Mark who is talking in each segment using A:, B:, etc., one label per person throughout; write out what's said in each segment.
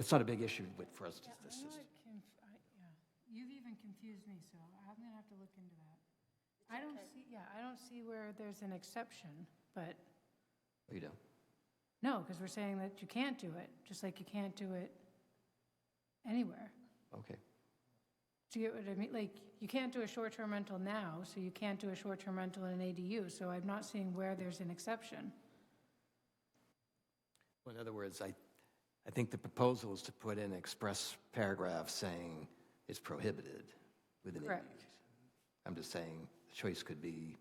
A: It's not a big issue with- for us.
B: Yeah,
A: It's-
B: I'm
A: it's just-
B: not conf, I, yeah, you've even confused me, so I'm gonna have to look into that. I don't see, yeah, I don't see where there's an exception, but,
A: You know,
B: no, because we're saying that you can't do it, just like you can't do it anywhere.
A: okay.
B: Do you get what I mean? Like, you can't do a short-term rental now, so you can't do a short-term rental in an ADU, so I'm not seeing where there's an exception.
A: Well, In other words, I, I think the proposal is to put in express paragraph saying it's prohibited within ADUs.
B: Correct.
A: I'm just saying, the choice could be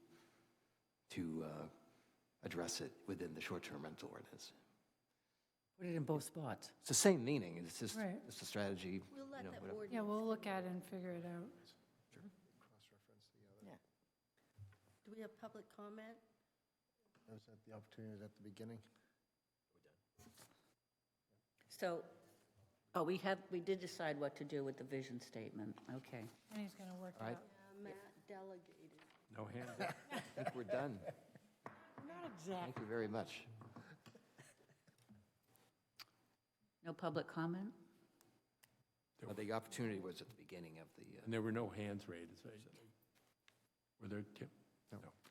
A: to uh, address it within the short-term rental ordinance.
C: Put it in both spots.
A: It's the same meaning, it's just,
B: Right.
A: it's a strategy,
D: We'll
A: you
D: let
A: know,
D: the
A: whatever.
B: Yeah,
D: ordinance,
B: we'll look at it and figure it out.
D: do we have public comment?
E: Was that the opportunity at the beginning?
F: So, oh, we have, we did decide what to do with the vision statement, okay.
B: And he's gonna work it
A: All right.
B: out.
D: Uh, Matt delegated.
G: No hand.
A: I think we're done.
C: Not exactly.
A: Thank you very much.
F: No public comment?
A: Uh, The opportunity was at the beginning of the, uh,
G: And there were no hands raised. right? Were there, Tim?
E: No.